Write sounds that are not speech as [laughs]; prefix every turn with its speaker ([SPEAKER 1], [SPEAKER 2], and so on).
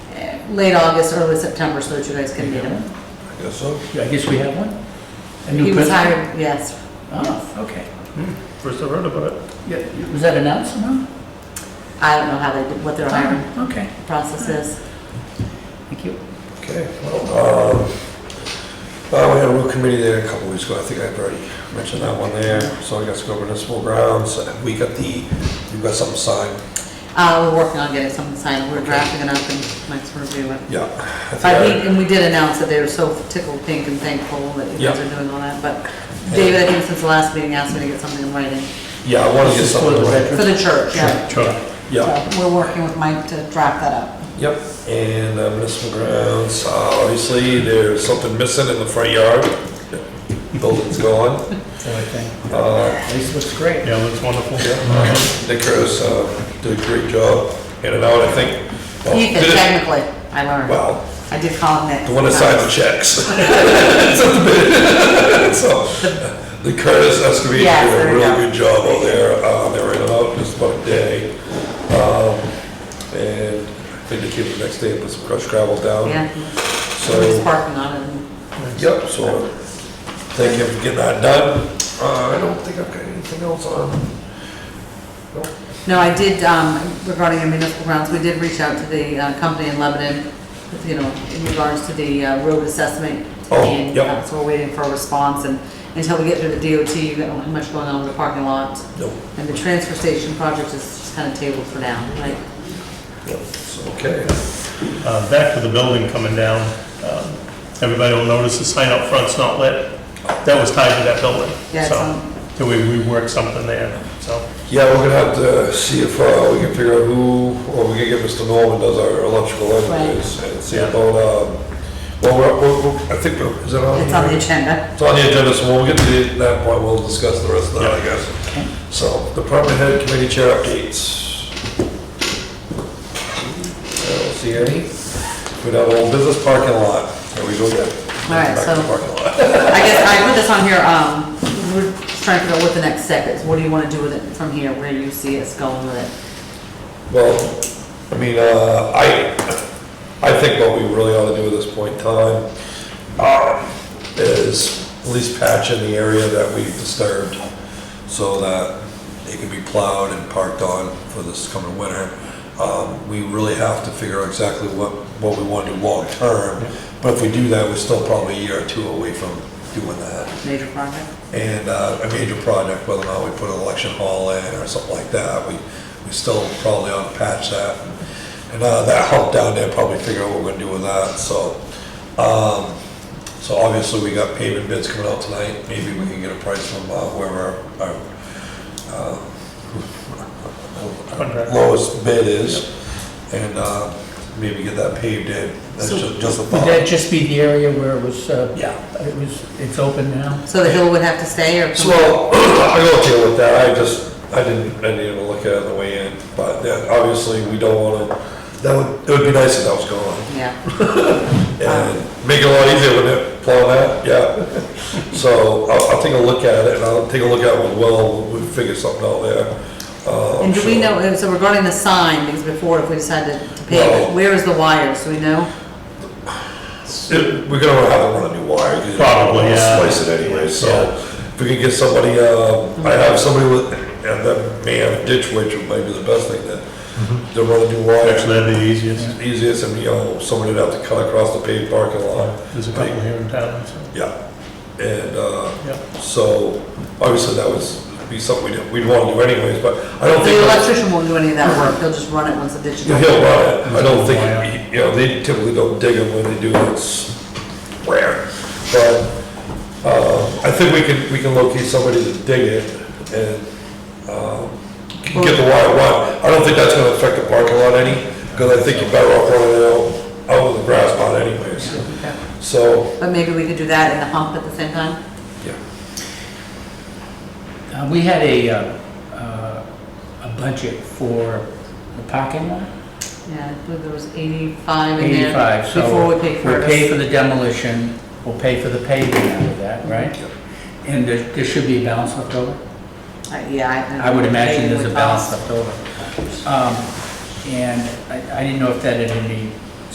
[SPEAKER 1] late August, early September, so that you guys can meet him.
[SPEAKER 2] I guess so.
[SPEAKER 3] I guess we have one? A new
[SPEAKER 1] He was
[SPEAKER 3] principal?
[SPEAKER 1] hired, yes.
[SPEAKER 3] Oh, okay.
[SPEAKER 4] Hmm, First I heard about it.
[SPEAKER 3] Yeah, Was that announced somehow?
[SPEAKER 1] I don't know how they, did what
[SPEAKER 2] Oh.
[SPEAKER 1] their hiring
[SPEAKER 3] Okay,
[SPEAKER 1] process is.
[SPEAKER 3] thank you.
[SPEAKER 2] Okay, well, um, uh, we had a road committee there a couple weeks ago, I think I've already mentioned that one there, so I got to go over municipal grounds, we got the, we got something signed,
[SPEAKER 1] Uh, we're working on getting something signed, we're drafting it up and Mike's reviewing it.
[SPEAKER 2] yeah. I think
[SPEAKER 1] But
[SPEAKER 2] I-
[SPEAKER 1] he, and we did announce that they were so tickled pink and thankful that you guys
[SPEAKER 2] Yeah.
[SPEAKER 1] are doing all that, but David, I think since the last meeting, asked me to get something in writing
[SPEAKER 2] Yeah, I want to get
[SPEAKER 3] This is for
[SPEAKER 2] something
[SPEAKER 3] the
[SPEAKER 2] right.
[SPEAKER 3] veteran.
[SPEAKER 1] for the church, yeah.
[SPEAKER 4] Sure.
[SPEAKER 2] Yeah,
[SPEAKER 1] So We're working with Mike to draft that up.
[SPEAKER 2] yep, and uh, municipal grounds, uh, obviously, there's something missing in the front yard, building's gone.
[SPEAKER 3] [laughs] So I think,
[SPEAKER 2] Uh,
[SPEAKER 3] this looks great.
[SPEAKER 4] Yeah, that's wonderful.
[SPEAKER 2] yeah, Nick Rose, uh, did a great job, in and out, I think. well,
[SPEAKER 1] Ethan,
[SPEAKER 2] did it-
[SPEAKER 1] technically, I learned.
[SPEAKER 2] Well,
[SPEAKER 1] I did call him Nick.
[SPEAKER 2] Oh, The one that signs the checks. [laughs] So, the Curtis Escovitch
[SPEAKER 1] Yes,
[SPEAKER 2] did
[SPEAKER 1] there
[SPEAKER 2] a
[SPEAKER 1] we
[SPEAKER 2] really
[SPEAKER 1] go.
[SPEAKER 2] good job over there. Uh, They were in and out just about a day. Um, And I think they came the next day and put some crushed gravel down.
[SPEAKER 1] Yeah,
[SPEAKER 2] So,
[SPEAKER 1] we're just working on it.
[SPEAKER 2] yep, so thank you for getting that done. Uh, I don't think I've got anything else on.
[SPEAKER 1] No, I did, um, regarding the municipal grounds, we did reach out to the uh, company in Lebanon, you know, in regards to the uh, road assessment.
[SPEAKER 2] Oh,
[SPEAKER 1] And,
[SPEAKER 2] yep.
[SPEAKER 1] uh, So we're waiting for a response, and until we get through the DOT, you don't have much going on with the parking lot.
[SPEAKER 2] Nope.
[SPEAKER 1] And the transfer station project is just kind of tabled for now, right?
[SPEAKER 2] Yep, so, Okay.
[SPEAKER 4] Uh, back to the building coming down, um, everybody will notice the sign up front's not lit. That was tied to that building.
[SPEAKER 1] Yeah, it's
[SPEAKER 4] So,
[SPEAKER 1] on-
[SPEAKER 4] Till we rework something there, so.
[SPEAKER 2] Yeah, we're gonna have to see if uh, we can figure out who, or we can get Mr. Norman does our electrical engineers and see
[SPEAKER 4] Yeah.
[SPEAKER 2] about, um, well, we're- we're, we're- I think, we're- is that on?
[SPEAKER 1] It's on the agenda.
[SPEAKER 2] It's on the agenda, so when we get to the- that point, we'll discuss the rest of that, I guess. So, department head committee chair updates. I don't see any. We have old business parking lot, there we go again.
[SPEAKER 1] All right,
[SPEAKER 2] Back to
[SPEAKER 1] so-
[SPEAKER 2] Parking lot.
[SPEAKER 1] I guess I put this on here, um, we're trying to figure out what the next step is. What do you want to do with it from here? Where do you see us going with it?
[SPEAKER 2] Well, I mean, uh, I, I think what we really ought to do at this point in time uh, is at least patch in the area that we've disturbed so that it can be plowed and parked on for this coming winter. Um, We really have to figure out exactly what, what we want to do long-term, but if we do that, we're still probably a year or two away from doing that
[SPEAKER 1] Major project?
[SPEAKER 2] and uh, a major project, whether or not we put an election hall in or something like that, we, we still probably ought to patch that. And uh, that help down there, probably figure out what we're gonna do with that, so. um, So obviously, we got paving bids coming out tonight, maybe we can get a price from uh, whoever our
[SPEAKER 4] Contract.
[SPEAKER 2] lowest bid is, and uh, maybe get that paved in, that's
[SPEAKER 3] So-
[SPEAKER 2] ju- just a
[SPEAKER 3] Would that
[SPEAKER 2] thought.
[SPEAKER 3] just be the area where it was, uh,
[SPEAKER 2] Yeah.
[SPEAKER 3] it was, it's open now?
[SPEAKER 1] So the hill would have to stay or?
[SPEAKER 2] So, [clears throat] I go deal with that, I just, I didn't, I didn't even look at it on the way in, but yeah, obviously, we don't wanna, that would, it would be nice if that was gone.
[SPEAKER 1] Yeah,
[SPEAKER 2] And make it a lot easier when it plow that, yeah.
[SPEAKER 1] [laughs]
[SPEAKER 2] So, I'll, I'll take a look at it, and I'll take a look at it, well, we figure something out there. Uh,
[SPEAKER 1] and do we
[SPEAKER 2] so-
[SPEAKER 1] know, and so regarding the sign, because before if we decided to pave
[SPEAKER 2] No.
[SPEAKER 1] it, where is the wire, so we know?
[SPEAKER 2] It- We're gonna have to run a new wire. 'cause
[SPEAKER 4] Probably,
[SPEAKER 2] we'll
[SPEAKER 4] yeah.
[SPEAKER 2] Splice it anyway, so
[SPEAKER 4] Yeah.
[SPEAKER 2] if we could get somebody, uh, I have somebody with, and that man ditch witch might be the best thing to, to run a new wire.
[SPEAKER 4] Mm-hmm. Actually, that'd be the easiest.
[SPEAKER 2] easiest, and, you know, somebody would have to cut across the paved parking lot.
[SPEAKER 4] There's a couple here in town, so,
[SPEAKER 2] Yeah, and, uh,
[SPEAKER 4] yeah.
[SPEAKER 2] so, obviously, that was, be something we'd, we'd wanna do anyways, but I don't think.
[SPEAKER 1] The electrician won't do any of that work, he'll just run it once the ditch is
[SPEAKER 2] He'll
[SPEAKER 1] done.
[SPEAKER 2] run it, I don't think, it'd be- you know, they typically don't dig them when they do, it's rare. But, uh, I think we can, we can locate somebody to dig it and, um, get the wire run. I don't think that's gonna affect the parking lot any, because I think you're better off running it out, out in the grass lot anyways. So,
[SPEAKER 1] But maybe we could do that and the hump at the same time?
[SPEAKER 2] yeah,
[SPEAKER 3] Uh, We had a, uh, uh, a budget for the parking lot,
[SPEAKER 1] Yeah, I believe there was eighty-five in there.
[SPEAKER 3] 85, so.
[SPEAKER 1] Before we pay for
[SPEAKER 3] We'll pay
[SPEAKER 1] it.
[SPEAKER 3] for the demolition, we'll pay for the paving out of that, right? And there there should be a balance left over?
[SPEAKER 1] Uh, Yeah.
[SPEAKER 3] I would imagine
[SPEAKER 1] Maybe
[SPEAKER 3] there's a
[SPEAKER 1] we
[SPEAKER 3] balance
[SPEAKER 1] cost.
[SPEAKER 3] left over. Um, And I I didn't know if that had any